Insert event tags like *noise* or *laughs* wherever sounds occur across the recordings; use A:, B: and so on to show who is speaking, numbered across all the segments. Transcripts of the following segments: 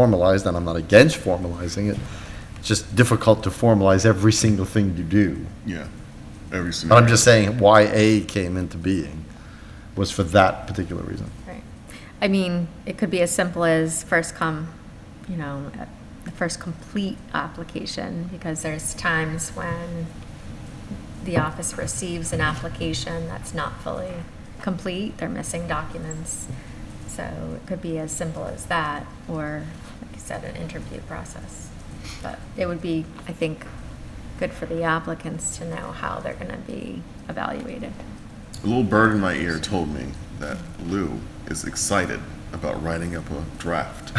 A: formalized, and I'm not against formalizing it. It's just difficult to formalize every single thing you do.
B: Yeah, every
A: But
B: single.
A: I'm just saying why A came into being was for that particular reason.
C: Right. I mean, it could be as simple as first come, you know, the first complete application, because there's times when the office receives an application that's not fully complete, they're missing documents. So it could be as simple as that, or, like you said, an interview process. But it would be, I think, good for the applicants to know how they're gonna be evaluated.
B: A little bird in my ear told me that Lou is excited about writing up a draft.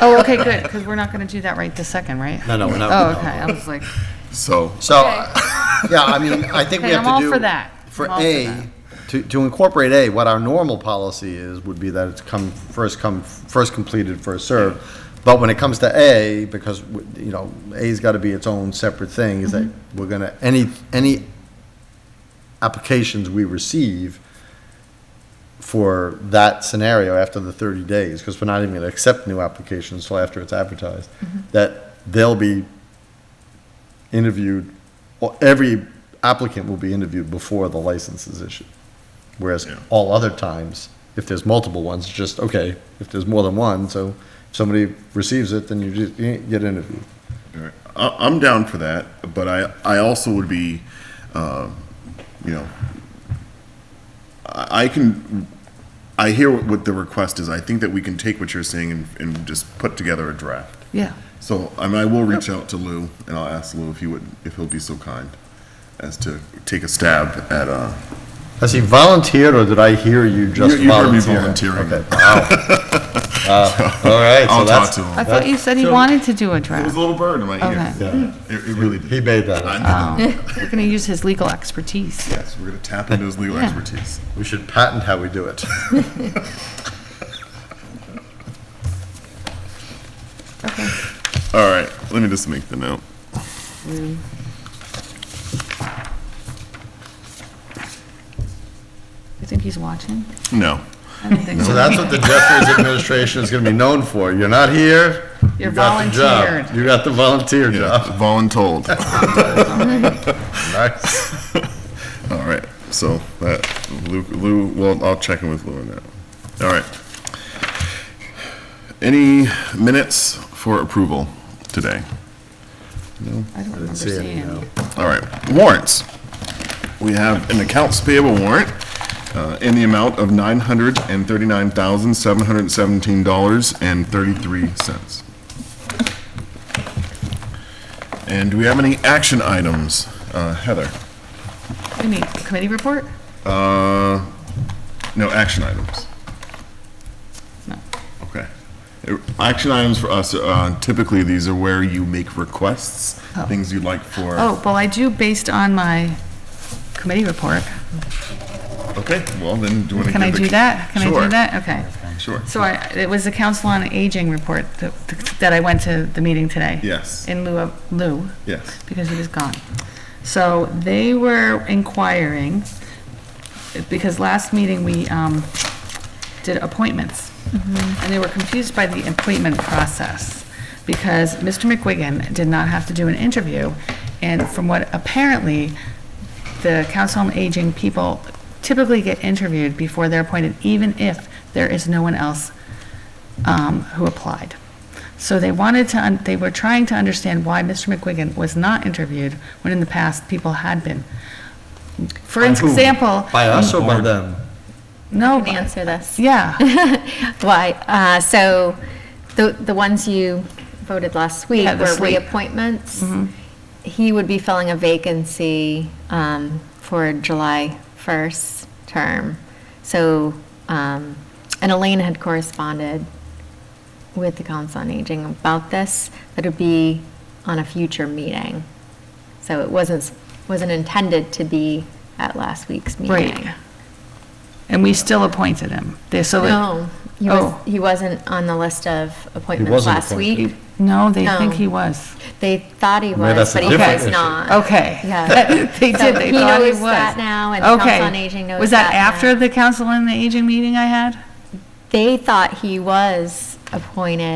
D: Oh, okay, good, because we're not going to do that right this second, right?
A: No, no, we're not-
D: Oh,
A: no.
D: okay, I was like,
B: So,
A: So, *laughs* yeah, I mean, I think we
D: Okay,
A: have
D: I'm
A: to do.
D: all for that.
A: For
D: I'm all for
A: A,
D: that.
A: to, to incorporate A, what our normal policy is, would be that it's come, first come, first completed, first served. But when it comes to A, because, w- you know, A's got to be its own separate thing, is that
D: Mm-hmm.
A: we're going to, any, any applications we receive for that scenario after the 30 days, because we're not even going to accept new applications till after it's advertised,
D: Mm-hmm.
A: that they'll be interviewed, well, every applicant will be interviewed before the license is issued. Whereas
B: Yeah.
A: all other times, if there's multiple ones, it's just, okay, if there's more than one, so if somebody receives it, then you just, you get interviewed.
B: all right. I, I'm down for that, but I, I also would be, uh, you know, I, I can, I hear what, what the request is. I think that we can take what you're saying and, and just put together a draft.
D: yeah,
B: So, I mean, I will reach out to Lou and I'll ask Lou if he would, if he'll be so kind as to take a stab at, uh,
A: Has he volunteered, or did I hear you just
B: You- you heard me
A: volunteer?
B: volunteering.
A: Okay,
B: *laughs*
A: wow. Uh, All right, so
B: I'll
A: that's.
B: talk to him.
D: I thought you said he wanted to do a
B: It was
D: draft.
B: a little bird in my ear.
D: Okay.
B: It, it really did.
A: He made that. up.
B: I know.
D: We're going to use his legal expertise.
B: Yes, we're gonna tap into his legal
D: Yeah.
B: expertise.
A: We should patent how we do it.
D: Okay.
B: All right, let me just make the note.
D: You think he's watching?
B: No.
D: I don't think
A: So
D: so.
A: that's what the Jeffries administration is going to be known for. You're not here.
D: You're
A: you got the job.
D: volunteered.
A: You got the volunteer
B: Yeah,
A: job.
B: voluntold.
A: Nice.
B: *laughs* All right, so that, Lou, Lou, well, I'll check in with Lou on that. All right. Any minutes for approval today?
D: I don't remember
A: see it,
D: seeing
A: no.
D: any.
B: All right, warrants. We have an accounts payable warrant uh, in the amount of $939,717.33. And do we have any action items? Uh, Heather?
D: Any committee report?
B: Uh, No, action items.
D: No.
B: Okay. Uh, Action items for us, uh, typically, these are where you make requests,
D: Oh.
B: things you'd like for.
D: Oh, well, I do based on my committee report.
B: Okay, well, then, do you want to give
D: Can
B: the?
D: I do that? Can I
B: Sure,
D: do that? Okay.
B: Sure.
D: So I, it was the Council on Aging report that, that I went to the meeting today.
B: Yes.
D: In lieu of, Lou.
B: Yes.
D: Because he was gone. So they were inquiring, because last meeting we, um, did appointments. And they were confused by the appointment process, because Mr. McWiggin did not have to do an interview. And from what apparently, the Council on Aging people typically get interviewed before they're appointed, even if there is no one else um, who applied. So they wanted to, un- they were trying to understand why Mr. McQuiggin was not interviewed when in the past people had been. For
A: By whom?
D: example.
A: By us or by
C: Mm-hmm.
A: them?
D: No.
C: Can I answer this?
D: *laughs* Yeah.
C: *laughs* Why, uh, so the, the ones you voted last week
D: Yeah,
C: were
D: this week. Mm-hmm.
C: reappointments. He would be filling a vacancy, um, for July first term. So, um, and Elaine had corresponded with the Council on Aging about this, that it'd be on a future meeting. So it wasn't, wasn't intended to be at last week's meeting.
D: Right. And we still appointed him. They, so. it-
C: No, he
D: Oh.
C: was, he wasn't on the list of appointments
A: wasn't
C: last
A: appointed.
C: week.
D: No, they think
C: No.
D: he was.
C: They thought he
A: Well, that's
C: was,
A: a
C: but he
A: different
C: was
A: issue.
C: not.
D: Okay.
C: Yeah.
D: *laughs* They
C: So
D: did, they
C: he
D: thought he
C: knows
D: was.
C: that now, and the
D: Okay.
C: Council on Aging knows
D: Was that
C: that now.
D: after the Council on the Aging meeting I had?
C: They thought he was appointed